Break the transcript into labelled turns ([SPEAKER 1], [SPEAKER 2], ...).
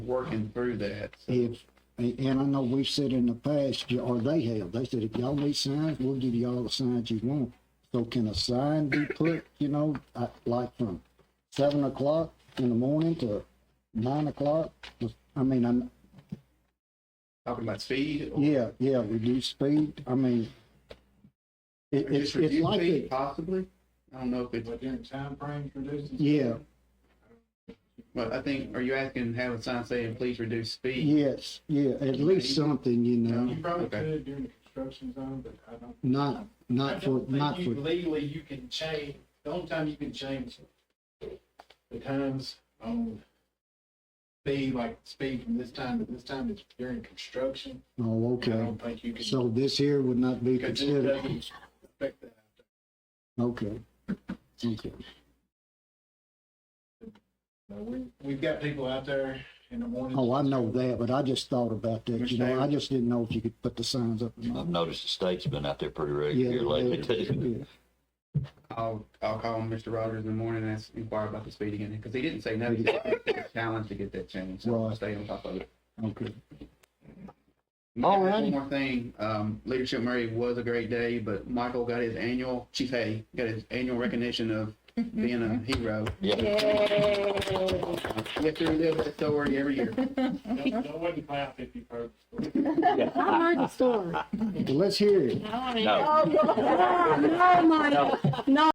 [SPEAKER 1] working through that. So,
[SPEAKER 2] If, and I know we've said in the past, or they have, they said, if y'all need signs, we'll give you all the signs you want. So can a sign be put, you know, uh, like from seven o'clock in the morning to nine o'clock? I mean, I'm,
[SPEAKER 1] Talking about speed? or-
[SPEAKER 2] yeah, yeah, reduce speed, I mean, it,
[SPEAKER 1] or
[SPEAKER 2] it's,
[SPEAKER 1] just
[SPEAKER 2] it's
[SPEAKER 1] reduce
[SPEAKER 2] like,
[SPEAKER 1] speed,
[SPEAKER 2] it-
[SPEAKER 1] Possibly. I don't know if it's,
[SPEAKER 3] Within timeframes reduced?
[SPEAKER 2] yeah,
[SPEAKER 1] but I think, are you asking, have a sign saying, please reduce speed?
[SPEAKER 2] yes, yeah, at least something, you know,
[SPEAKER 3] You probably
[SPEAKER 1] Okay.
[SPEAKER 3] could during the construction zone, but I don't.
[SPEAKER 2] not,
[SPEAKER 3] I
[SPEAKER 2] not for,
[SPEAKER 3] don't
[SPEAKER 2] not
[SPEAKER 3] think you-
[SPEAKER 2] for,
[SPEAKER 3] Legally, you can change, the only time you can change the times on speed, like speed from this time to this time is during construction.
[SPEAKER 2] oh,
[SPEAKER 3] I
[SPEAKER 2] okay.
[SPEAKER 3] don't think you can.
[SPEAKER 2] So this here would not be
[SPEAKER 3] because it
[SPEAKER 2] considered,
[SPEAKER 3] doesn't affect the-
[SPEAKER 2] okay. Okay.
[SPEAKER 3] no, we- We've got people out there in the morning.
[SPEAKER 2] Oh, I know that, but I just thought about that, you know, I just didn't know if you could put the signs up. or not.
[SPEAKER 4] I've noticed the state's been out there pretty
[SPEAKER 2] Yeah,
[SPEAKER 4] regular lately too.
[SPEAKER 2] yeah,
[SPEAKER 1] I'll, I'll call Mr. Rogers in the morning and ask, inquire about the speed again, because he didn't say no. He just said it's a Challenge to get that changed. So I'll
[SPEAKER 2] Right.
[SPEAKER 1] stay on top of it.
[SPEAKER 2] Okay,
[SPEAKER 1] All right.
[SPEAKER 2] Alrighty.
[SPEAKER 1] One more thing, um, Leadership Murray was a great day, but Michael got his annual, Chief Hay, got his annual recognition of being a hero.
[SPEAKER 4] Yeah,
[SPEAKER 5] Yay.
[SPEAKER 1] Get through this that story every year.
[SPEAKER 3] Don't, don't wait to clap if you've heard. the story.
[SPEAKER 6] I heard the story.
[SPEAKER 2] well, let's hear it.
[SPEAKER 4] no.
[SPEAKER 6] No, Michael, no.